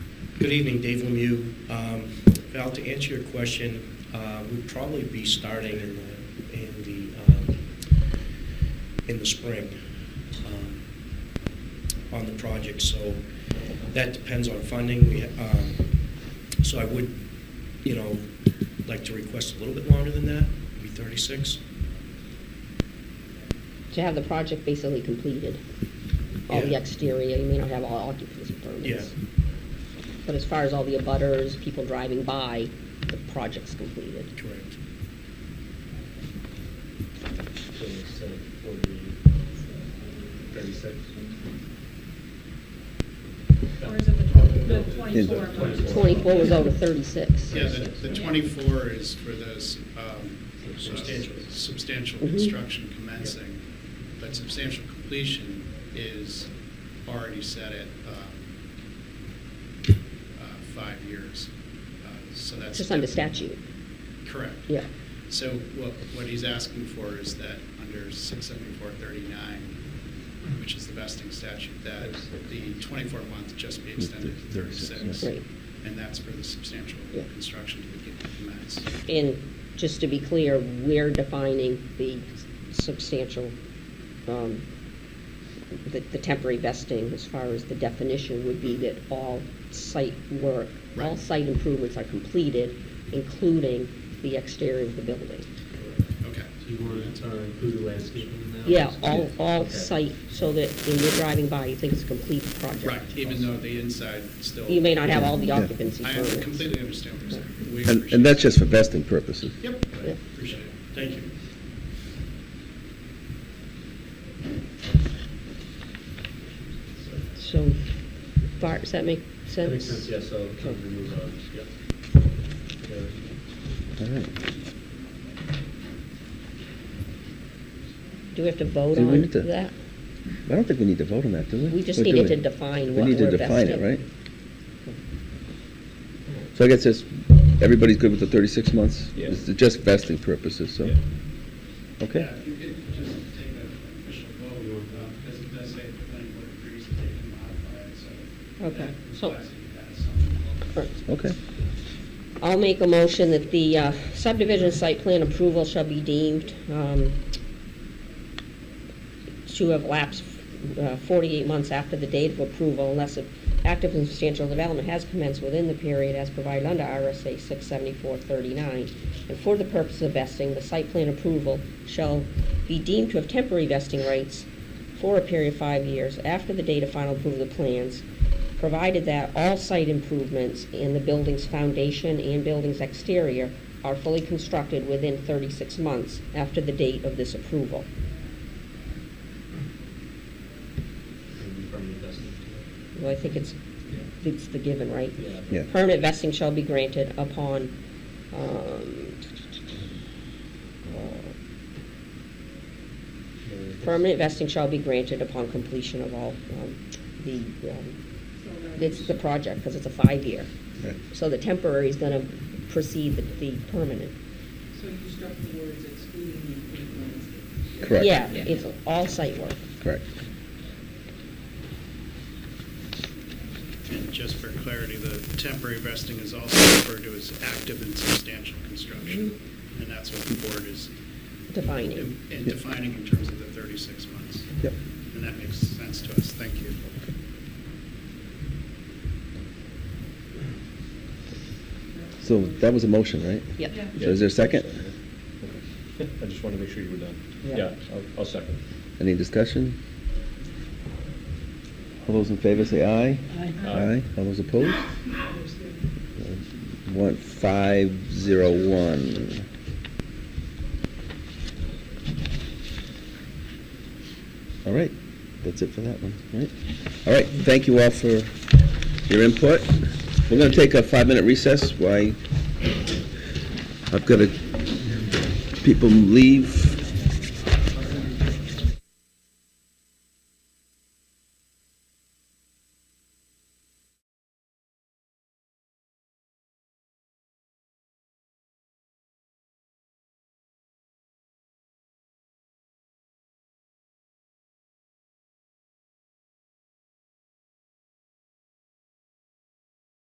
Good evening, Dave Lemieux. Um, Val, to answer your question, uh, we'd probably be starting in the, in the, um, in the spring um, on the project, so that depends on funding. We, um, So I would, you know, like to request a little bit longer than that, maybe 36. To have the project basically completed, all the Yeah. exterior, you may not have all occupancy permits. Yeah. But as far as all the abutters, people driving by, the project's completed. Correct. So it's, uh, 40, 36. Or is it the tw- the 24 Twenty-four. Twenty-four was over thirty-six. Yeah, the, the Yeah. twenty-four is for those, um, Substantial. substantial Mhm. construction commencing, but substantial completion is already set at, um, uh, five years, uh, so that's. Just under statute, Correct. yeah. So what, what he's asking for is that under six seventy-four thirty-nine, which is the vesting statute, that the twenty-four month just be extended to thirty-six. Right. And that's for the substantial Yeah. construction to begin to commence. And just to be clear, we're defining the substantial, um, the, the temporary vesting as far as the definition would be that all site work, all Right. site improvements are completed, including the exterior of the building. Okay. So you want to include the landscaping in that? Yeah, all, all Okay. site, so that when you're driving by, you think it's a complete project. Right, even though the inside still. You may not have all the Yeah. occupancy I permits. completely understand what you're saying. We And, appreciate and that's it. just for vesting purposes. Yep, Yeah. appreciate it. Thank you. So, Bart, does that make That sense? makes sense, yeah, so we Okay. can move on, yep. Yeah. All right. Do we have to vote Do we on need to- that? I don't think we need to vote on that, do we? We just Or do needed we? to define We what need to we're define it, vesting. right? So I guess it's, everybody's good with the 36 months? Yeah. It's just vesting purposes, so, Yeah. okay? Yeah, if you could just take an official vote, uh, because it does say if the planning board agrees that they can modify it, so. Okay, that so- implies that you have something. Or- Okay. I'll make a motion that the uh, subdivision site plan approval shall be deemed um, to have lapsed uh, 48 months after the date of approval unless an active and substantial development has commenced within the period as provided under RSA 674-39. And for the purpose of vesting, the site plan approval shall be deemed to have temporary vesting rights for a period of five years after the date of final approval of the plans, provided that all site improvements in the building's foundation and building's exterior are fully constructed within 36 months after the date of this approval. And we firmly vested it. Well, I think it's, it's the given, right? Yeah. Permanent vesting shall be granted upon, um, Yeah. permanent vesting shall be granted upon completion of all, um, the, um, it's the project, because it's a five-year. Right. So the temporary is gonna precede the, the permanent. So you struck the words excluding the paved landscape. Correct. Yeah, it's all site work. Correct. And just for clarity, the temporary vesting is also referred to as active and substantial construction. And that's what the board is Defining. in in defining in terms of the 36 months. Yep. And that makes sense to us. Thank you. So that was a motion, right? Yep. Yeah. So is there a second? I just wanted to make sure you were done. Yeah. I'll- I'll second. Any discussion? All those in favor say aye. Aye. Aye. All those opposed? One, five, zero, one. All right, that's it for that one, All right? All right, thank you all for your input. We're gonna take a five-minute recess, why, I've got to, people leave